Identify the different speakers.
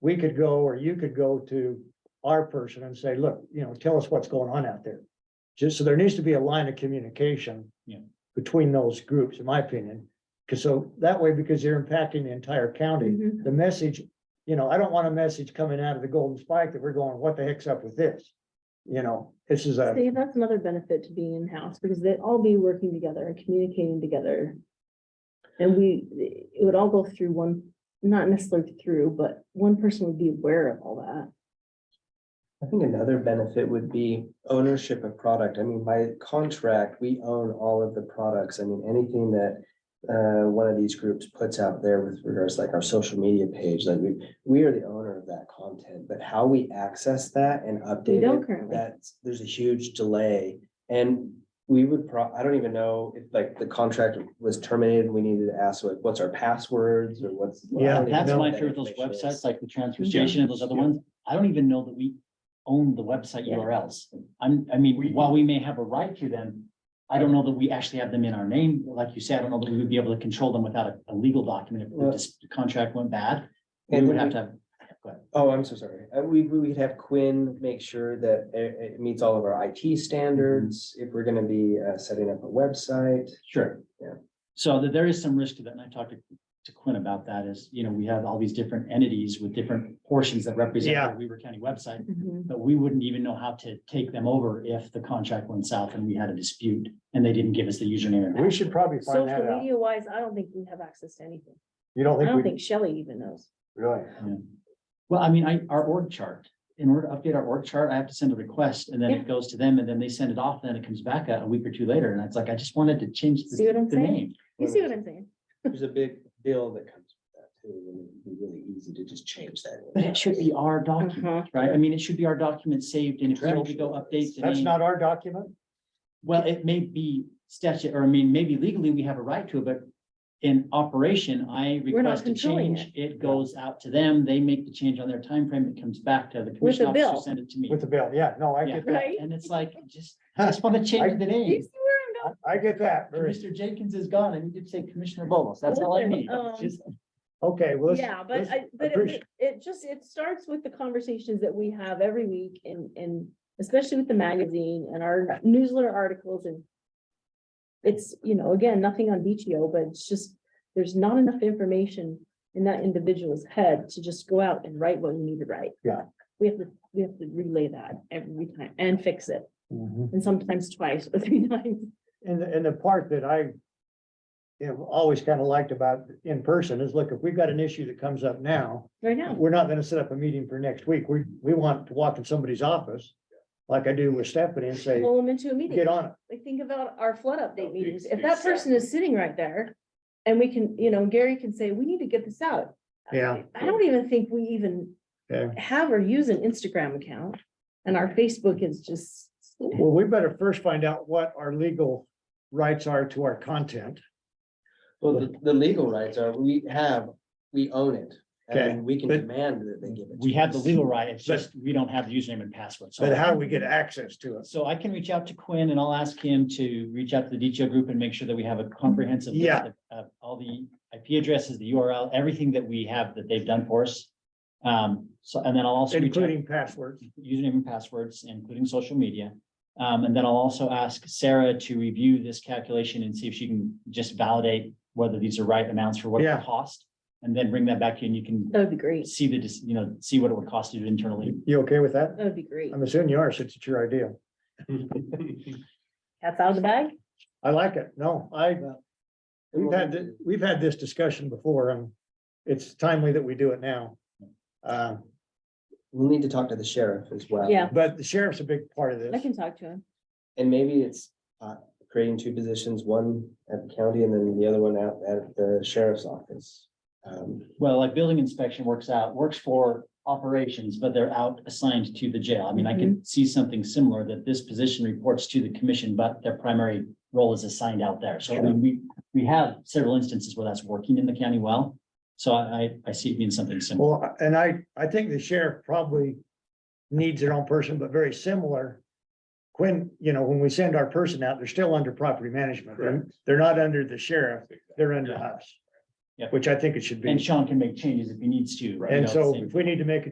Speaker 1: we could go, or you could go to our person and say, look, you know, tell us what's going on out there. Just so there needs to be a line of communication.
Speaker 2: Yeah.
Speaker 1: Between those groups, in my opinion, because so that way, because you're impacting the entire county,
Speaker 3: Mhm.
Speaker 1: the message. You know, I don't want a message coming out of the Golden Spike that we're going, what the heck's up with this? You know, this is a.
Speaker 3: See, that's another benefit to being in-house, because they'd all be working together and communicating together. And we, it would all go through one, not necessarily through, but one person would be aware of all that.
Speaker 4: I think another benefit would be ownership of product. I mean, by contract, we own all of the products. I mean, anything that uh, one of these groups puts out there with regards like our social media page, like we, we are the owner of that content, but how we access that and
Speaker 3: We
Speaker 4: update
Speaker 3: don't
Speaker 4: it,
Speaker 3: currently.
Speaker 4: that's, there's a huge delay. And we would pro, I don't even know if like the contract was terminated, and we needed to ask like, what's our passwords or what's. I
Speaker 1: Yeah,
Speaker 4: don't even
Speaker 2: That's
Speaker 4: know
Speaker 2: my
Speaker 4: what
Speaker 2: fear with
Speaker 4: that
Speaker 2: those
Speaker 4: information is.
Speaker 2: websites, like the transfer station and those other ones. I don't even know that we own the website
Speaker 3: Yeah.
Speaker 2: URLs. I'm, I mean, while we may have a right to them, I don't know that we actually have them in our name. Like you said, I don't know that we would be able to control them without a, a legal document. If the
Speaker 4: Well-
Speaker 2: dis- contract went bad, we
Speaker 4: And
Speaker 2: would
Speaker 4: we-
Speaker 2: have to have
Speaker 4: Oh, I'm so sorry. Uh, we, we would have Quinn make sure that it, it meets all of our IT standards, if we're gonna be, uh, setting up a website.
Speaker 2: Sure.
Speaker 4: Yeah.
Speaker 2: So that there is some risk to that, and I talked to, to Quinn about that is, you know, we have all these different entities with different portions that represent
Speaker 1: Yeah.
Speaker 2: the Weaver County website.
Speaker 3: Mhm.
Speaker 2: But we wouldn't even know how to take them over if the contract went south and we had a dispute and they didn't give us the username. and
Speaker 1: We should probably find that
Speaker 3: Social
Speaker 1: out.
Speaker 3: media wise, I don't think we have access to anything.
Speaker 1: You don't
Speaker 3: I
Speaker 1: think
Speaker 3: don't
Speaker 1: we,
Speaker 3: think Shelley even knows.
Speaker 1: really?
Speaker 2: password. Well, I mean, I, our org chart, in order to update our org chart, I have to send a request and then
Speaker 3: Yeah.
Speaker 2: it goes to them and then they send it off, then it comes back a, a week or two later. And it's like, I just wanted to change
Speaker 3: See what
Speaker 2: the,
Speaker 3: I'm
Speaker 2: the
Speaker 3: saying?
Speaker 2: name.
Speaker 3: You see what I'm saying?
Speaker 4: There's a big bill that comes with that too, and it'd be really easy to just change that.
Speaker 2: But it should be our document,
Speaker 3: Uh-huh.
Speaker 2: right? I mean, it should be our document saved and if we need to go update the
Speaker 1: That's
Speaker 2: name.
Speaker 1: not our document?
Speaker 2: Well, it may be statute, or I mean, maybe legally we have a right to it, but in operation, I
Speaker 3: We're not
Speaker 2: request a
Speaker 3: controlling
Speaker 2: change. It goes out to them. They make the change on their time frame. It comes back to the
Speaker 3: With
Speaker 2: commission
Speaker 3: a
Speaker 2: officer,
Speaker 3: bill.
Speaker 2: send it to me.
Speaker 1: With the bill, yeah, no, I
Speaker 2: Yeah.
Speaker 1: get that,
Speaker 3: Right?
Speaker 2: And it's like, just, I just want to change the
Speaker 3: You
Speaker 2: name.
Speaker 3: see where I'm going?
Speaker 1: I- I get that, very-
Speaker 2: Mr. Jenkins is gone. I need to say Commissioner Bolos. That's all I
Speaker 3: Listen,
Speaker 2: need.
Speaker 3: um,
Speaker 2: Just-
Speaker 1: okay, well, let's.
Speaker 3: Yeah, but
Speaker 1: let's-
Speaker 3: I, but
Speaker 1: appreciate-
Speaker 3: it, it just, it starts with the conversations that we have every week and, and especially with the magazine and our newsletter articles and it's, you know, again, nothing on BTO, but it's just, there's not enough information in that individual's head to just go out and write what we need to write.
Speaker 1: Yeah.
Speaker 3: We have to, we have to relay that every time and fix it,
Speaker 1: Mhm.
Speaker 3: and sometimes twice or three times.
Speaker 1: And, the- and the part that I you know, always kind of liked about in person is, look, if we've got an issue that comes up now,
Speaker 3: Right now,
Speaker 1: we're not gonna set up a meeting for next week. We, we want to walk in somebody's office, like I do with Stephanie, and say,
Speaker 3: pull them into a meeting.
Speaker 1: get on it.
Speaker 3: like think about our flood update
Speaker 5: Oh,
Speaker 3: meetings,
Speaker 5: ex-
Speaker 3: if that person is
Speaker 5: exactly.
Speaker 3: sitting right there. And we can, you know, Gary can say, we need to get this out.
Speaker 1: Yeah.
Speaker 3: I don't even think we even
Speaker 1: Yeah.
Speaker 3: have or use an Instagram account, and our Facebook is just.
Speaker 1: Well, we better first find out what our legal rights are to our content.
Speaker 4: Well, the, the legal rights are, we have, we own it,
Speaker 1: Okay,
Speaker 4: and we can
Speaker 1: but-
Speaker 4: demand that they give it.
Speaker 2: We
Speaker 4: to
Speaker 2: have the
Speaker 4: us.
Speaker 2: legal right. It's
Speaker 1: But-
Speaker 2: just, we don't have the username and password. So
Speaker 1: But how do we get access to it?
Speaker 2: So I can reach out to Quinn and I'll ask him to reach out to the DTO group and make sure that we have a comprehensive. list
Speaker 1: Yeah.
Speaker 2: of- Of all the IP addresses, the URL, everything that we have that they've done for us. Um, so, and then I'll also. reach out-
Speaker 1: Including passwords.
Speaker 2: Username and passwords, including social media. Um, and then I'll also ask Sarah to review this calculation and see if she can just validate whether these are right amounts for what
Speaker 1: Yeah.
Speaker 2: it cost. And then bring that back to you and you can
Speaker 3: That would be great,
Speaker 2: see the, dis- you know, see what it would cost you internally.
Speaker 1: You okay with that?
Speaker 3: that would be great.
Speaker 1: I'm assuming you are, since it's your idea.
Speaker 3: That's out of the bag?
Speaker 1: I like it. No, I, we've had, thi- we've had this discussion before and it's timely that we do it now. Uh,
Speaker 4: We'll need to talk to the sheriff as well.
Speaker 3: Yeah,
Speaker 1: but the sheriff's a big part of this.
Speaker 3: I can talk to him.
Speaker 4: And maybe it's uh, creating two positions, one at the county and then the other one out at the sheriff's office. Um,
Speaker 2: Well, like building inspection works out, works for operations, but they're out assigned to the jail. I mean, I can see something similar that this position reports to the commission, but their primary role is assigned out there. So I mean, we, we have several instances where that's working in the county well. So I, I- I see it being something similar.
Speaker 1: Well, and I, I think the sheriff probably needs their own person, but very similar. When, you know, when we send our person out, they're still under property management. They're, they're not under the sheriff, they're under us.
Speaker 2: Yep.
Speaker 1: Which I think it should
Speaker 2: And
Speaker 1: be.
Speaker 2: Sean can make changes if he needs to. you
Speaker 1: And
Speaker 2: know,
Speaker 1: so
Speaker 2: same-
Speaker 1: if we need to make a